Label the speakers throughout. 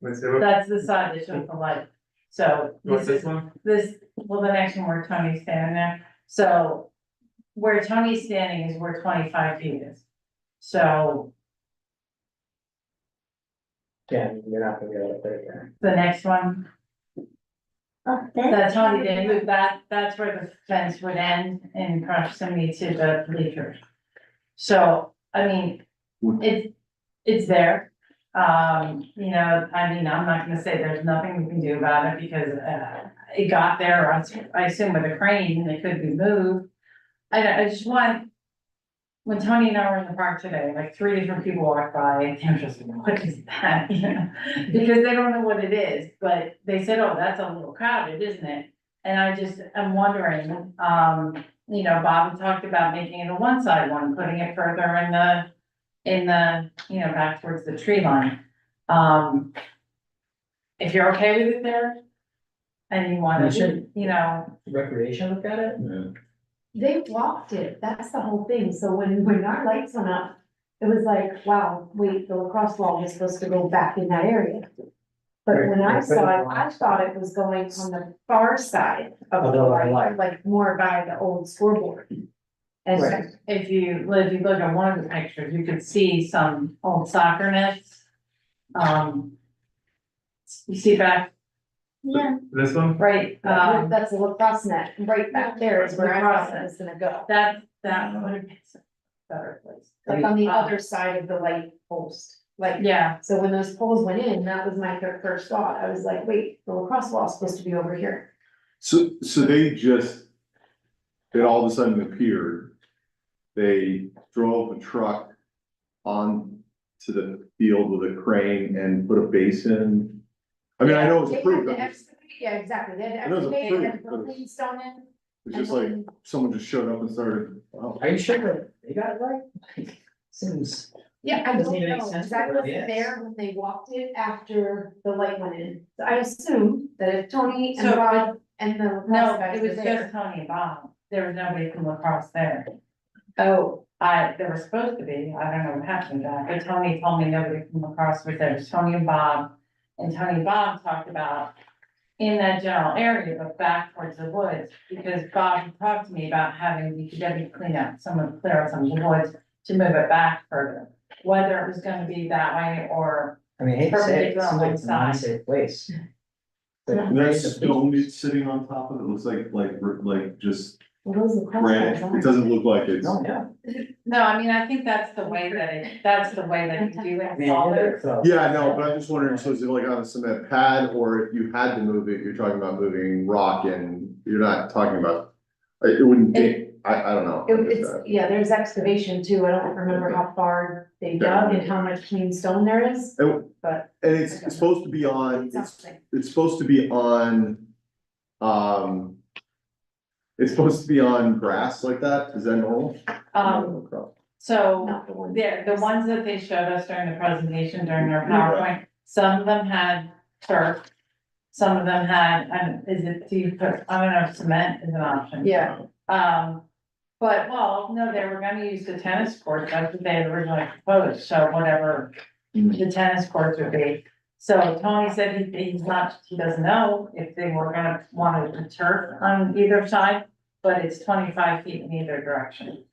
Speaker 1: Let's see, what-
Speaker 2: That's the side that's with the light. So
Speaker 1: what's
Speaker 2: this
Speaker 1: this
Speaker 2: is,
Speaker 1: one?
Speaker 2: this, well, the next one where Tony's standing there, so. Where Tony's standing is where twenty-five feet is. So
Speaker 1: Yeah, you're not gonna be able to put it there.
Speaker 2: the next one,
Speaker 3: Up there.
Speaker 2: that's Tony did move that, that's where the fence would end in proximity to the bleachers. So, I mean, it's, it's there. Um, you know, I mean, I'm not gonna say there's nothing we can do about it because, uh, it got there, I s- I assume with a crane, and it could be moved. I don't, I just want, when Tony and I were in the park today, like three different people walked by, and they were just, what is that, you know? Because they don't know what it is, but they said, oh, that's a little crowded, isn't it? And I just, I'm wondering, um, you know, Bob had talked about making it a one-side one, putting it further in the in the, you know, back towards the tree line. Um. If you're okay with it there. And you wanna,
Speaker 1: We should.
Speaker 2: you know,
Speaker 1: Recreation look at it?
Speaker 4: They walked it, that's the whole thing, so when, when our lights went up, it was like, wow, wait, the lacrosse wall was supposed to go back in that area. But when
Speaker 1: Right,
Speaker 4: I
Speaker 1: right,
Speaker 4: saw it,
Speaker 1: right.
Speaker 4: I thought it was going on the far side
Speaker 1: Of
Speaker 4: of
Speaker 1: the
Speaker 4: the
Speaker 1: light.
Speaker 4: light, like more by the old scoreboard. And
Speaker 1: Right.
Speaker 2: if you, well, if you look at one of the pictures, you could see some old soccer nets. Um. You see back,
Speaker 3: Yeah,
Speaker 1: This one?
Speaker 2: right, um,
Speaker 4: that's a lacrosse net, right back there is where I thought it was gonna go,
Speaker 2: that, that would have been a better place.
Speaker 4: like on the other side of the light post, like.
Speaker 2: Yeah,
Speaker 4: So when those poles went in, that was my fir- first thought, I was like, wait, the lacrosse wall's supposed to be over here.
Speaker 5: So, so they just, it all of a sudden appeared. They drove a truck on to the field with a crane and put a basin. I mean, I know
Speaker 4: They
Speaker 5: it's
Speaker 4: had
Speaker 5: approved,
Speaker 4: to
Speaker 5: but it's
Speaker 4: excavate- Yeah, exactly, they had
Speaker 5: I know
Speaker 4: to
Speaker 5: it's
Speaker 4: excavate and
Speaker 5: approved, but
Speaker 4: put clean stone in.
Speaker 5: it's just like someone just showed up and started, wow.
Speaker 1: Are you sure that they got it right? Seems.
Speaker 4: Yeah, I
Speaker 1: Doesn't
Speaker 4: don't
Speaker 1: even make
Speaker 4: know,
Speaker 1: sense
Speaker 4: because I
Speaker 1: for it, yes.
Speaker 4: wasn't there when they walked it after the light went in, so I assume that if Tony and
Speaker 2: So-
Speaker 4: Rod and the.
Speaker 2: No,
Speaker 4: last guys
Speaker 2: it
Speaker 4: were
Speaker 2: was just
Speaker 4: there-
Speaker 2: Tony and Bob. There was nobody from lacrosse there.
Speaker 4: Oh,
Speaker 2: I, there was supposed to be, I don't know what happened to that, but Tony told me nobody from lacrosse was there. It was Tony and Bob. And Tony and Bob talked about in that general area, but back towards the woods, because Bob had talked to me about having DPW clean up some of, clear out some of the woods to move it back further, whether it was gonna be that way or,
Speaker 1: I mean, I hate to say it, it,
Speaker 2: Perpendicular on
Speaker 1: seems
Speaker 2: one
Speaker 1: like it's an
Speaker 2: side.
Speaker 1: unsafe place.
Speaker 5: And that stone is sitting on top of it, it looks like, like, like just
Speaker 4: well, those lacrosse.
Speaker 5: granite,
Speaker 4: guys
Speaker 5: it doesn't look like it's.
Speaker 1: No, yeah.
Speaker 2: no, I mean, I think that's the way that it, that's the way that you do
Speaker 1: I
Speaker 2: it.
Speaker 1: mean, it's, uh,
Speaker 5: Yeah, no, but I'm just wondering, so is it like on a cement pad, or if you had to move it, you're talking about moving rock and you're not talking about. It it wouldn't, be- I, I don't know.
Speaker 4: It- it's, yeah, there's excavation too, I don't remember how far they dug and how much clean stone there is,
Speaker 5: And
Speaker 4: but
Speaker 5: and it's it's supposed to be on, it's,
Speaker 4: something.
Speaker 5: it's supposed to be on, um. It's supposed to be on grass like that, is that normal?
Speaker 2: Um, so.
Speaker 4: Not the one.
Speaker 2: There, the ones that they showed us during the presentation during their PowerPoint, some of them had turf. Some of them had, um, is it, do you put, I don't know, if cement is an option.
Speaker 4: Yeah.
Speaker 2: Um, but, well, no, they were gonna use the tennis court, that's what they had originally proposed, so whatever the tennis courts would be. So Tony said he, he's not, he doesn't know if they were gonna want to turf on either side, but it's twenty-five feet in either direction.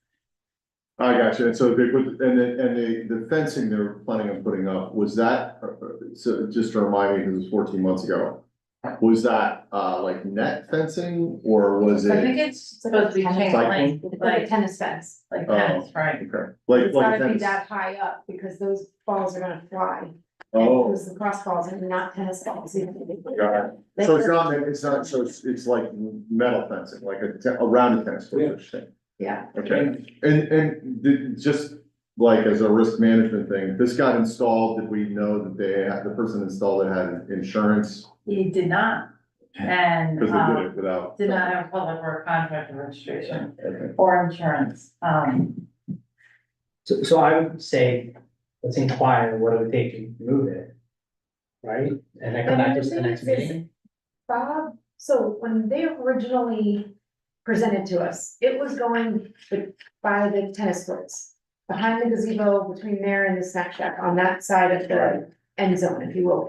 Speaker 5: I got you, and so they put, and the, and the, the fencing they were planning on putting up, was that, uh, uh, so just to remind me, because it was fourteen months ago. Was that, uh, like net fencing, or was
Speaker 2: I think
Speaker 5: it,
Speaker 2: it's supposed to be chain link,
Speaker 4: It's like a
Speaker 2: like,
Speaker 4: tennis fence.
Speaker 2: like
Speaker 5: Oh.
Speaker 2: tennis, right?
Speaker 5: okay, like,
Speaker 4: It's
Speaker 5: like
Speaker 4: gotta
Speaker 5: a
Speaker 4: be
Speaker 5: tennis?
Speaker 4: that high up because those balls are gonna fly.
Speaker 5: Oh,
Speaker 4: Those lacrosse balls are not tennis balls.
Speaker 5: got it. so it's not, it's not, so it's, it's like metal fencing, like a, te- around a tennis court, or something.
Speaker 4: Yeah,
Speaker 5: Okay, and, and did, just like as a risk management thing, this got installed, did we know that they, had- the person installed it had insurance?
Speaker 2: He did not, and,
Speaker 5: Cause they did
Speaker 4: Uh-huh.
Speaker 2: um,
Speaker 5: it without.
Speaker 2: did not have public work contract or registration
Speaker 5: Okay.
Speaker 2: or insurance, um,
Speaker 6: So, so I would say, let's inquire, what it would take to move it? Right, and then come back to us the next meeting,
Speaker 4: Bob, so when they originally presented to us, it was going be- by the tennis courts. Behind the gazebo, between there and the snack shack, on that side of the end zone, if you will.